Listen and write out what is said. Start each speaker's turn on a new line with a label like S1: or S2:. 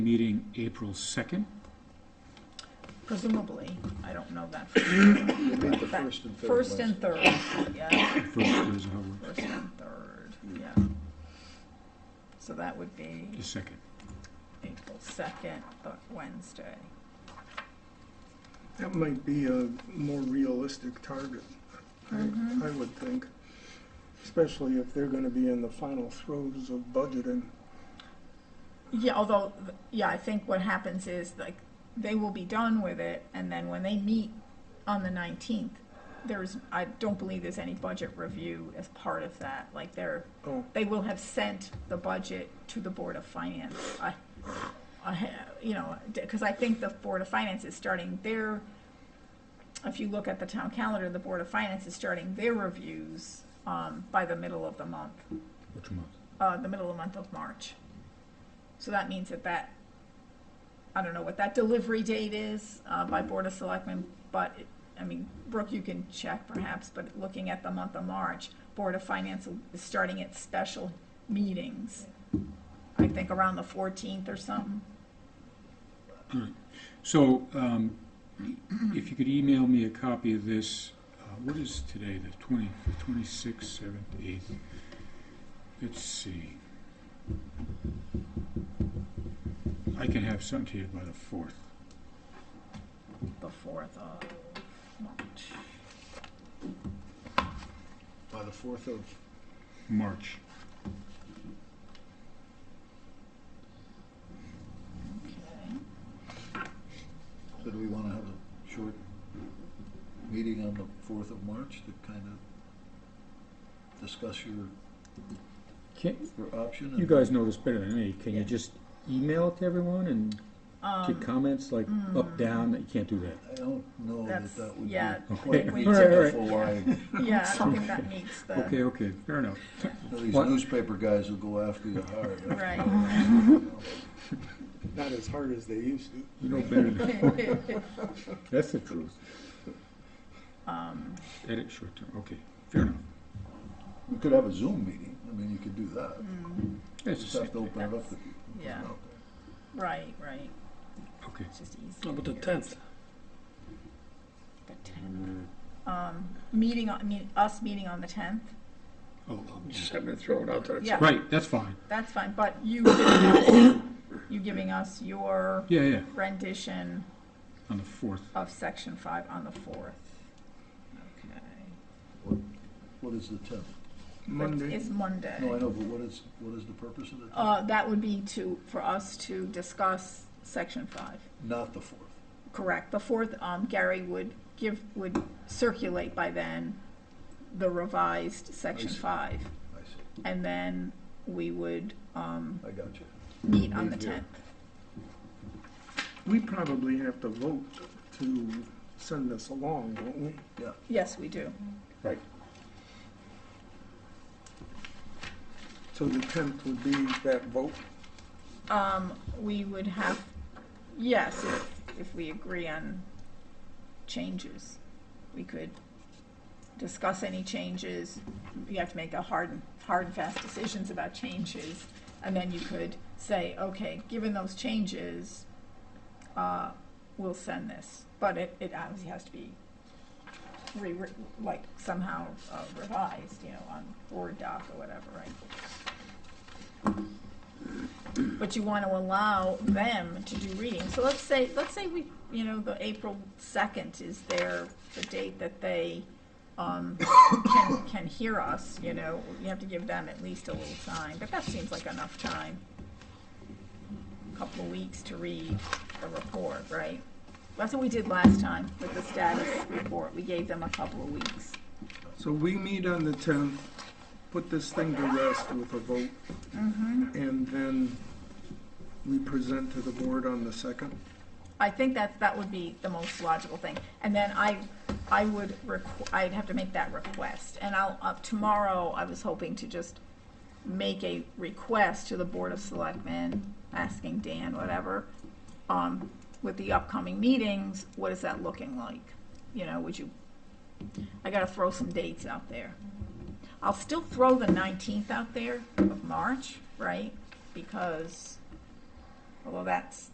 S1: meeting April 2nd.
S2: Presumably, I don't know that for sure.
S3: We'll meet the
S2: but that-
S3: first and third
S2: First and
S3: Wednesday.
S2: third, yeah,
S1: First Thursday, how about
S2: first and third, yeah. So that would be
S1: the second?
S2: April second, the Wednesday.
S4: That might be a more realistic target, I,
S2: Mm-hmm.
S4: I would think. Especially if they're gonna be in the final throes of budgeting.
S2: Yeah, although, yeah, I think what happens is, like, they will be done with it, and then when they meet on the nineteenth, there's, I don't believe there's any budget review as part of that, like, they're,
S4: Oh,
S2: they will have sent the budget to the Board of Finance. I, I, ha- you know, because I think the Board of Finance is starting their, if you look at the town calendar, the Board of Finance is starting their reviews um, by the middle of the month,
S1: Which month?
S2: uh, the middle of the month of March. So that means that that, I don't know what that delivery date is uh, by Board of Selectmen, but, it- I mean, Brooke, you can check perhaps, but looking at the month of March, Board of Finance will- is starting its special meetings, I think around the 14th or something.
S1: So um, if you could email me a copy of this, uh, what is today, the 20th, 26th, 7th, 8th? Let's see. I can have something to you by the 4th.
S2: the fourth of March.
S3: By the fourth of,
S1: March.
S2: Okay.
S3: so do we want to have a short meeting on the fourth of March to kind of discuss your,
S5: Can,
S3: your option?
S5: you
S3: and-
S5: guys know this better than me. Can
S2: Yeah.
S5: you just email it to everyone and
S2: Um, hmm.
S5: get comments like up, down? That you can't do that.
S3: I don't know that
S2: That's-
S3: that would be
S2: yeah,
S3: quite
S2: we- we
S5: did-
S3: meaningful. I-
S2: yeah, I don't think that meets the,
S1: Okay, okay, fair enough.
S3: These
S5: What?
S3: newspaper guys will go after you hard.
S2: right.
S4: not as hard as they used to.
S1: You know better than,
S5: That's the truth.
S2: Um,
S1: edit short term, okay, fair enough.
S3: We could have a Zoom meeting. I mean, you could do that.
S2: mm,
S1: That's the
S3: Just have to
S1: same.
S3: open it up to people.
S2: Yeah. right, right,
S1: Okay.
S2: it's just easy.
S6: How about the
S2: to do.
S6: 10th?
S2: The tenth. Um, meeting on, I mean, us meeting on the tenth,
S1: Oh,
S6: Just having to throw it out there.
S2: yeah,
S1: Right, that's fine.
S2: that's fine, but you giving us, you giving us your
S1: Yeah, yeah,
S2: rendition
S1: on the 4th.
S2: of section five on the fourth. Okay.
S3: What is the tenth?
S4: Monday,
S2: It's Monday.
S3: No, I know, but what is, what is the purpose of the tenth?
S2: Uh, that would be to, for us to discuss section five.
S3: Not the fourth.
S2: Correct. The fourth, um, Gary would give, would circulate by then the revised section
S3: I see.
S2: five.
S3: I see.
S2: And then we would, um,
S3: I got you.
S2: meet on the
S1: Meet here.
S2: tenth.
S4: we probably have to vote to send this along, don't we?
S2: Yes, we do.
S4: So the tenth would be that vote.
S2: Um, we would have, yes, if, if we agree on changes, we could discuss any changes. You have to make a hard, and- hard and fast decisions about changes. And then you could say, okay, given those changes, uh, we'll send this. But it, it obviously has to be re, like somehow uh, revised, you know, on Word doc or whatever, right? But you want to allow them to do reading. So let's say, let's say we, you know, the April second is their, the date that they, um, can, can hear us, you know, you have to give them at least a little time, but that seems like enough time. Couple of weeks to read the report, right? That's what we did last time with the status report. We gave them a couple of weeks.
S4: So we meet on the tenth, put this thing to rest with a vote,
S2: Mm-hmm.
S4: and then we present to the board on the second.
S2: I think that, that would be the most logical thing. And then I, I would, requ- I'd have to make that request. And I'll, uh, tomorrow, I was hoping to just make a request to the Board of Selectmen, asking Dan, whatever, um, with the upcoming meetings, what is that looking like? You know, would you, I gotta throw some dates out there. I'll still throw the nineteenth out there of March, right? Because although that's